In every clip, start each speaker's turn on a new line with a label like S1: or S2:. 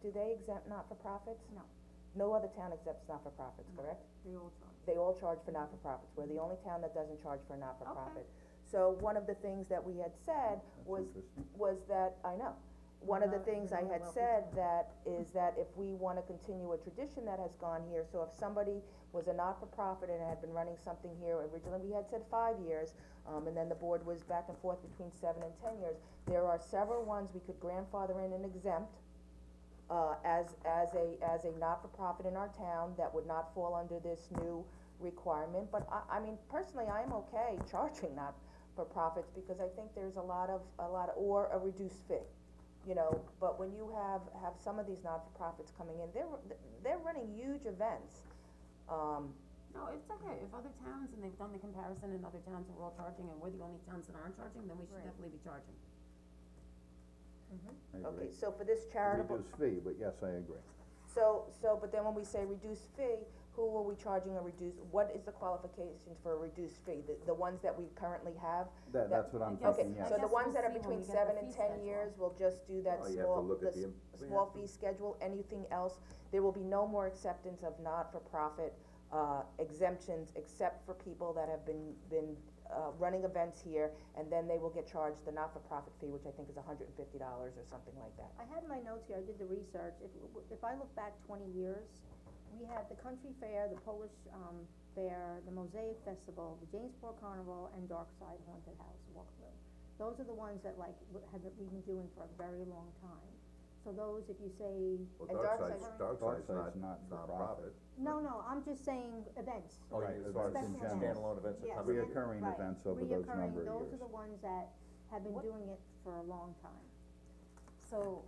S1: do they exempt not-for-profits?
S2: No.
S1: No other town exempts not-for-profits,
S2: No.
S1: correct?
S2: They all charge.
S1: They all charge for not-for-profits, we're the only town that doesn't charge for a not-for-profit. So one of the things that we had said was, was that, I know, one of the
S2: Well,
S1: things I
S2: you're
S1: had
S2: welcome
S1: said
S2: to.
S1: that, is that if we wanna continue a tradition that has gone here, so if somebody was a not-for-profit and had been running something here, originally we had said five years, um, and then the board was back and forth between seven and ten years, there are several ones we could grandfather in and exempt, uh, as, as a, as a not-for-profit in our town that would not fall under this new requirement, but I, I mean, personally, I am okay charging not-for-profits, because I think there's a lot of, a lot, of- or a reduced fee, you know, but when you have, have some of these not-for-profits coming in, they're, they're running huge events, um,
S3: No, it's okay, if other towns, and they've done the comparison, and other towns are all charging, and we're the only towns that aren't charging, then we should
S2: Right.
S3: definitely be charging.
S1: okay, so for this charitable,
S4: Reduce fee, but yes, I agree.
S1: so, so, but then when we say reduced fee, who are we charging a reduced, what is the qualifications for a reduced fee? The, the ones that we currently have, That-
S4: That, that's what I'm
S3: I guess-
S1: Okay,
S4: thinking,
S3: I
S4: yes.
S1: so the
S3: guess
S1: ones
S3: we'll
S1: that are
S3: see when
S1: between
S3: we get the
S1: seven
S3: fee
S1: and
S3: schedule.
S1: ten years, we'll just do that
S4: Oh, you have to
S1: small,
S4: look
S1: the
S4: at
S1: s-
S4: the im- we
S1: small
S4: have to-
S1: fee schedule, anything else, there will be no more acceptance of not-for-profit, uh, exemptions, except for people that have been, been, uh, running events here, and then they will get charged the not-for-profit fee, which I think is hundred and fifty dollars or something like that.
S2: I had my notes here, I did the research, if, if I look back twenty years, we had the country fair, the Polish, um, fair, the Mosaic Festival, the Jamesport Carnival, and Dark Side Haunted House Walkthrough. Those are the ones that like, w- had, that we've been doing for a very long time, so those, if you say,
S5: Well,
S1: And
S5: dark
S1: dark
S5: side's,
S1: side-
S5: dark
S4: Dark
S5: side's
S4: side's
S5: not,
S4: not for
S5: not
S4: profit.
S5: profit.
S2: no, no, I'm just saying events.
S5: Oh,
S4: Right,
S5: you- as far as
S2: events in Special general.
S5: standalone events, that
S2: Yes,
S5: cover
S2: and-
S5: everything.
S4: Reoccurring
S2: right,
S4: events over those number of
S2: Reoccurring, those
S4: years.
S2: are the ones that have been
S3: What-
S2: doing it for a long time.
S3: So,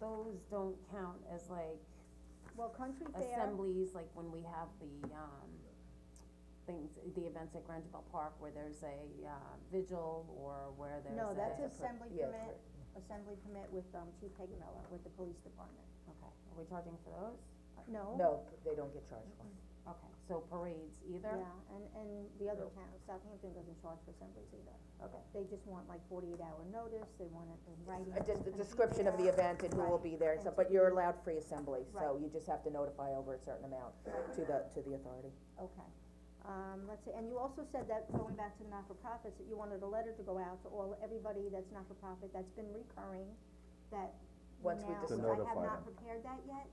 S3: those don't count as like
S2: Well, country fair,
S3: assemblies, like when we have the, um, things, the events at Grandville Park where there's a, uh, vigil, or where there's a.
S2: no, that's
S1: a-
S2: assembly
S1: yeah,
S2: permit, assembly permit with, um, Chief Hagamella, with the police department.
S3: Okay, are we charging for those?
S2: No?
S1: No, they don't get charged for it.
S3: Okay, so parades either?
S2: Yeah, and, and the other
S5: No.
S2: town, Southampton doesn't charge for assemblies either.
S3: Okay.
S2: They just want like forty-eight hour notice, they want it in writing.
S1: Uh, just the description of the event and who will be there and stuff, but you're allowed free assembly, so
S2: Right.
S1: you just have to notify over a certain amount to the, to the authority.
S2: Okay, um, let's see, and you also said that, going back to the not-for-profits, that you wanted a letter to go out to all, everybody that's not-for-profit, that's been recurring, that we
S1: Once we
S2: now,
S1: To
S2: I have
S4: notify
S2: not
S4: them.
S2: prepared that yet,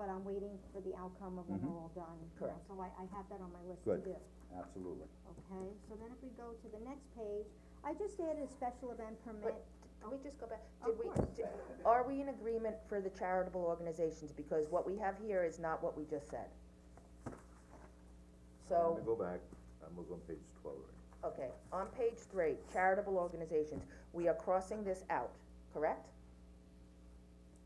S2: but I'm waiting for the outcome of when we're all done, you know,
S1: Mm-hmm. Correct.
S2: so I, I have that on my list to
S4: Good.
S2: do.
S4: Absolutely.
S2: Okay, so then if we go to the next page, I just added a special event permit.
S1: Can we just go back,
S2: Of
S1: did we,
S2: course.
S1: di- are we in agreement for the charitable organizations, because what we have here is not what we just said?
S5: Let
S1: So,
S5: me go back, I was on page twelve, right?
S1: okay, on page three, charitable organizations, we are crossing this out, correct?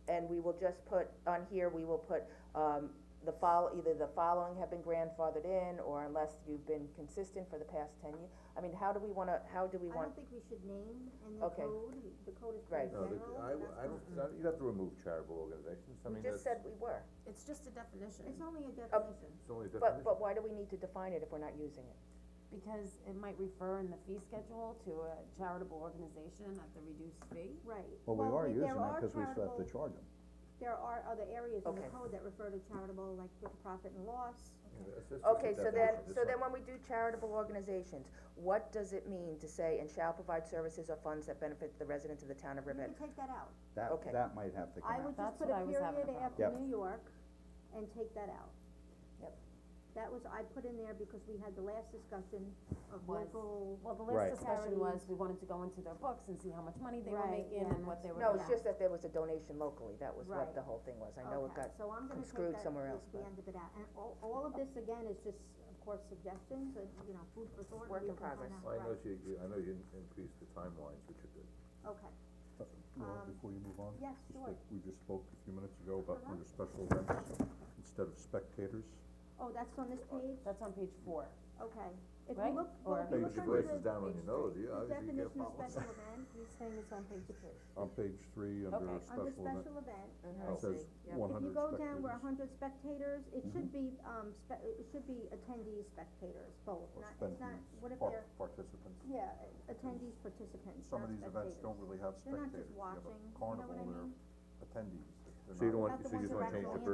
S1: And we will just put, on here, we will put, um, the fol- either the following have been grandfathered in, or unless you've been consistent for the past ten years. I mean, how do we wanna, how do we
S2: I
S1: want,
S2: don't think we should name in the
S1: Okay.
S2: code, the code is
S1: Right.
S2: pretty
S5: No,
S2: general.
S5: the, I,
S2: and that's
S5: I don't, I- you'd have to remove charitable organizations, I
S1: we
S5: mean,
S1: just said
S5: that's,
S1: we were,
S3: It's just a definition.
S2: It's only a definition,
S5: it's only a
S1: but,
S5: definition.
S1: but why do we need to define it if we're not using it?
S3: Because it might refer in the fee schedule to a charitable organization at the reduced fee.
S2: right.
S4: Well, we are
S2: we-
S4: using
S2: there
S4: it,
S2: are
S4: cause we still have to
S2: charitable-
S4: charge them.
S2: There are other areas in the
S1: Okay.
S2: code that refer to charitable, like with profit and loss.
S5: Yeah, that's- that's just a
S1: Okay, so then,
S5: definition.
S1: so
S5: It's
S1: then
S5: not-
S1: when we do charitable organizations, what does it mean to say, and shall provide services or funds that benefit the residents of the town of
S2: You
S1: Riverhead?
S2: could take that out.
S4: That,
S1: Okay.
S4: that might have to come
S2: I
S4: out.
S2: would just
S3: That's
S2: put
S3: what
S2: a
S3: I was having a
S2: period after
S4: problem. Yep.
S2: New York and take that out.
S1: Yep.
S2: That was, I put in there because we had the last discussion of
S3: Was-
S2: local,
S3: Well, the
S4: Right.
S3: last discussion was, we wanted to go into their books and see how much money they were
S2: Right,
S3: making
S2: yeah,
S3: and what they were.
S1: No, it's
S2: Yeah.
S1: just that there was a donation locally, that was what
S2: Right.
S1: the whole thing was, I know it
S2: okay,
S1: got,
S2: so I'm gonna take
S1: screwed
S2: that,
S1: somewhere else,
S2: the- the
S1: but-
S2: end of it out, and all, all of this again is just, of course, suggestions, and, you know, food for thought.
S1: Work
S2: you
S1: in
S2: can find
S1: progress.
S2: out,
S5: Well, I know
S2: right.
S5: you, you, I know you in- increased the timelines, which are good.
S2: Okay,
S6: Uh, Laura,
S2: Um,
S6: before you move on?
S2: yes,
S6: just
S2: sure.
S6: like We just spoke a few minutes ago about under special events, instead of spectators.
S2: oh, that's on this page,
S3: That's on page four.
S2: okay, if you
S3: Right?
S2: look, well, if
S3: Or-
S2: you
S5: Your
S2: look
S5: your
S2: under
S5: voice is
S2: the,
S5: down on your nose, you,
S2: the
S5: obviously you
S2: definition
S5: can't
S2: of
S5: follow.
S2: special event, he's saying it's on page two.
S6: On page three,
S3: Okay.
S6: under a
S2: Under
S6: special event,
S2: special event,
S6: it says one
S2: If you
S6: hundred Mm-hmm. spectators.
S2: go down where a hundred spectators, it should be, um, spe- it should be attendees, spectators, both,
S6: Or
S2: not, it's not,
S6: spendees,
S2: what if
S6: par-
S2: they're,
S6: participants.
S2: yeah, attendees, participants,
S6: Some
S2: not
S6: of these events
S2: spectators.
S6: don't really have
S2: They're not just
S6: spectators, you have
S2: watching, you
S6: a
S2: know what I
S6: carnival,
S2: mean?
S6: they're attendees, that
S2: So you don't want,
S4: Not the
S2: so you just wanna change
S4: ones that are
S2: the
S4: actually in
S2: first